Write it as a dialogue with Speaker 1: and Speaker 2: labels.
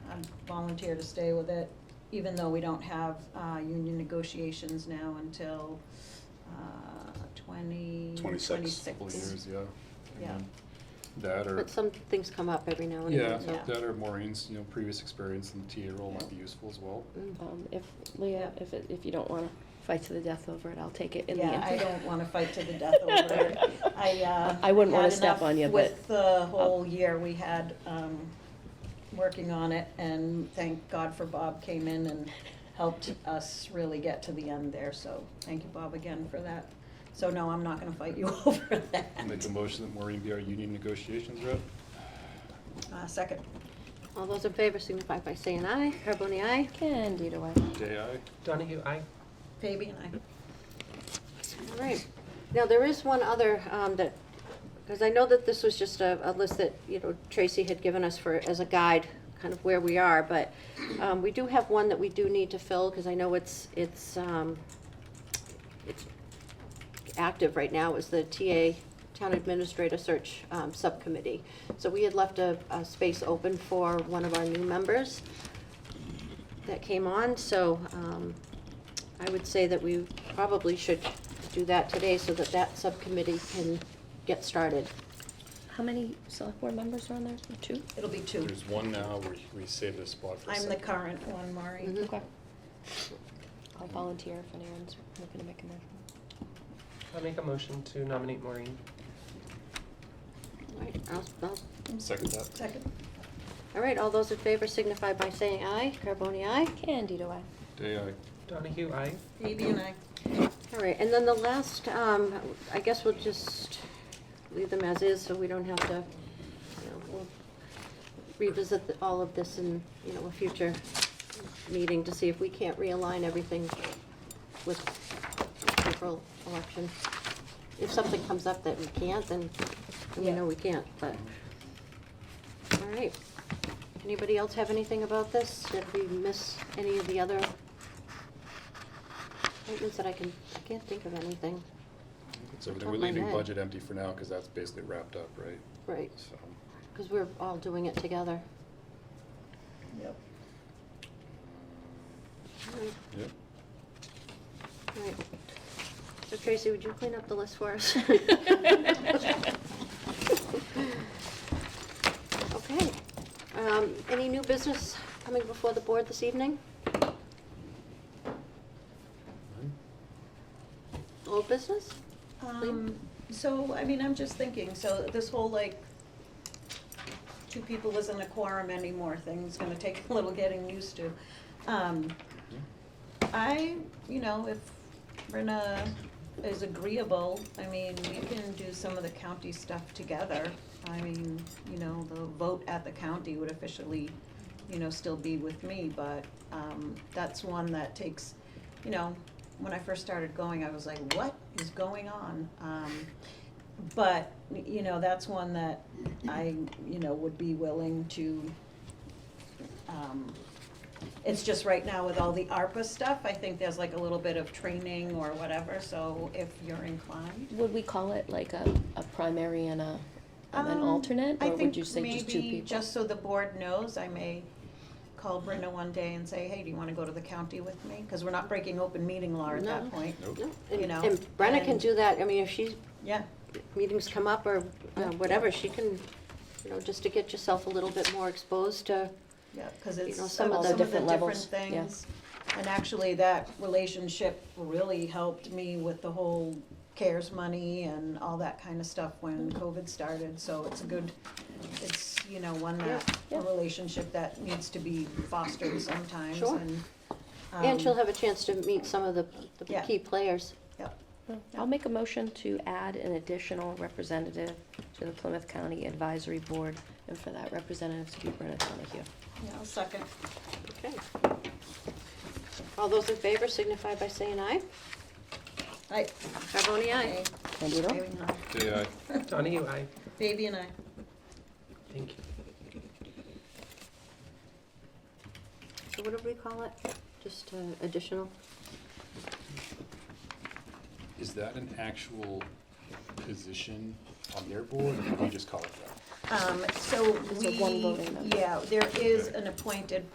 Speaker 1: um, volunteer to stay with it, even though we don't have, uh, union negotiations now until, uh, twenty,
Speaker 2: Twenty-six.
Speaker 1: twenty-six.
Speaker 3: couple of years, yeah. And
Speaker 1: Yeah.
Speaker 3: then That or,
Speaker 4: But some things come up every now and
Speaker 3: yeah,
Speaker 4: then,
Speaker 1: Yeah.
Speaker 3: that or Maureen's, you know, previous experience in the TA role might be useful as well.
Speaker 4: Mm.
Speaker 5: Um, if, Leah, if, it- if you don't wanna fight to the death over it, I'll take it in the
Speaker 1: Yeah,
Speaker 5: end.
Speaker 1: I don't wanna fight to the death over it. I, uh.
Speaker 5: I wouldn't wanna
Speaker 1: had
Speaker 5: step
Speaker 1: enough
Speaker 5: on you,
Speaker 1: With the whole year we had, um, working on it, and thank God for Bob came in and helped us really get to the end there, so thank you, Bob, again for that. So no, I'm not gonna fight you over
Speaker 3: I'll Make
Speaker 1: that.
Speaker 3: a motion that Maureen be our union negotiations rep.
Speaker 1: Uh, second,
Speaker 4: All those in favor signify by saying aye. Carbone, aye.
Speaker 5: Candida, I.
Speaker 3: Day I,
Speaker 6: Donahue, aye.
Speaker 1: Fabi and I.
Speaker 4: All right. Now, there is one other um, that, because I know that this was just a, a list that, you know, Tracy had given us for, as a guide, kind of where we are, but um, we do have one that we do need to fill, because I know it's, it's, um, it's active right now, is the TA, Town Administrator Search um, Subcommittee. So we had left a, a space open for one of our new members that came on, so um, I would say that we probably should do that today so that that subcommittee can get started.
Speaker 5: How many select board members are on there? Two?
Speaker 1: It'll be two.
Speaker 3: there's one now, we, we saved a spot for a
Speaker 1: I'm the
Speaker 3: second.
Speaker 1: current one, Maury.
Speaker 4: Mhm.
Speaker 5: Okay. I'll volunteer if anyone's looking to make a motion.
Speaker 6: I make a motion to nominate Maureen.
Speaker 4: All right, I'll- I'll-
Speaker 3: Second that.
Speaker 1: Second,
Speaker 4: all right, all those in favor signify by saying aye. Carbone, aye.
Speaker 5: Candida, I.
Speaker 3: Day I.
Speaker 6: Donahue, aye.
Speaker 1: Fabi and I.
Speaker 4: All right, and then the last, um, I guess we'll just leave them as is, so we don't have to, you know, we'll revisit the- all of this in, you know, a future meeting to see if we can't realign everything with April election. If something comes up that we can't, then we know we can't, but, all right. Anybody else have anything about this? Did we miss any of the other appointments that I can, I can't think of anything.
Speaker 3: So
Speaker 4: Top
Speaker 3: we're
Speaker 4: of my
Speaker 3: leaving
Speaker 4: head.
Speaker 3: budget empty for now, cause that's basically wrapped up, right?
Speaker 4: Right,
Speaker 3: So, um,
Speaker 4: because we're all doing it together.
Speaker 1: Yep.
Speaker 4: Alright,
Speaker 3: yep.
Speaker 4: alright. So Tracy, would you clean up the list for us? Okay. Um, Any new business coming before the board this evening?
Speaker 3: Mm-hmm.
Speaker 4: Old business?
Speaker 1: Um, so, I mean, I'm just thinking, so this whole like, two people isn't a quorum anymore thing's gonna take a little getting used to. Um, I, you know, if Brenna is agreeable, I mean, we can do some of the county stuff together. I mean, you know, the vote at the county would officially, you know, still be with me, but, um, that's one that takes, you know, when I first started going, I was like, what is going on? Um, but, you know, that's one that I, you know, would be willing to, um, it's just right now with all the ARPA stuff, I think there's like a little bit of training or whatever, so if you're inclined.
Speaker 5: Would we call it like a, a primary and a, um, an
Speaker 1: Um,
Speaker 5: alternate,
Speaker 1: I
Speaker 5: or would
Speaker 1: think
Speaker 5: you say just two people?
Speaker 1: Maybe, just so the board knows, I may call Brenda one day and say, hey, do you wanna go to the county with me? Cause we're not breaking open meeting law at
Speaker 4: No.
Speaker 1: that point.
Speaker 3: Nope.
Speaker 4: No?
Speaker 1: You know,
Speaker 4: And Brenna can
Speaker 1: and-
Speaker 4: do that, I mean, if she's
Speaker 1: Yeah,
Speaker 4: meetings come up or uh, whatever, she can, you know, just to get yourself a little bit more exposed to,
Speaker 1: Yeah, because
Speaker 4: You
Speaker 1: it's
Speaker 4: know,
Speaker 1: uh,
Speaker 4: some
Speaker 1: some
Speaker 4: of
Speaker 1: of
Speaker 4: the
Speaker 1: the
Speaker 5: different
Speaker 1: different
Speaker 5: levels, yeah.
Speaker 1: things. And actually, that relationship really helped me with the whole CARES money and all that kind of stuff when
Speaker 4: Mm.
Speaker 1: COVID started. So it's a good, it's, you know, one that,
Speaker 5: Yeah,
Speaker 1: a
Speaker 5: yeah.
Speaker 1: relationship that needs to be fostered sometimes
Speaker 4: Sure.
Speaker 1: and. um,
Speaker 4: and she'll have a chance to meet some of the the
Speaker 1: Yeah.
Speaker 4: key players.
Speaker 1: Yep,
Speaker 5: Well, I'll make a motion to add an additional representative to the Plymouth County Advisory Board, and for that representative to be Brenna Donahue.
Speaker 1: yeah, I'll second.
Speaker 4: Okay. All those in favor signify by saying aye.
Speaker 1: Aye.
Speaker 4: Carbone, aye.
Speaker 5: Candida, aye.
Speaker 1: Baby and I,
Speaker 3: Day I.
Speaker 6: Donahue, aye.
Speaker 1: Baby and I.
Speaker 6: Thank you.
Speaker 4: So what do we call it? Just uh, additional?
Speaker 3: Is that an actual position on their board, or do we just call it that?
Speaker 1: Um, so
Speaker 5: It's a
Speaker 1: we,
Speaker 5: one voting member.
Speaker 1: yeah, there is
Speaker 3: Okay.
Speaker 1: an appointed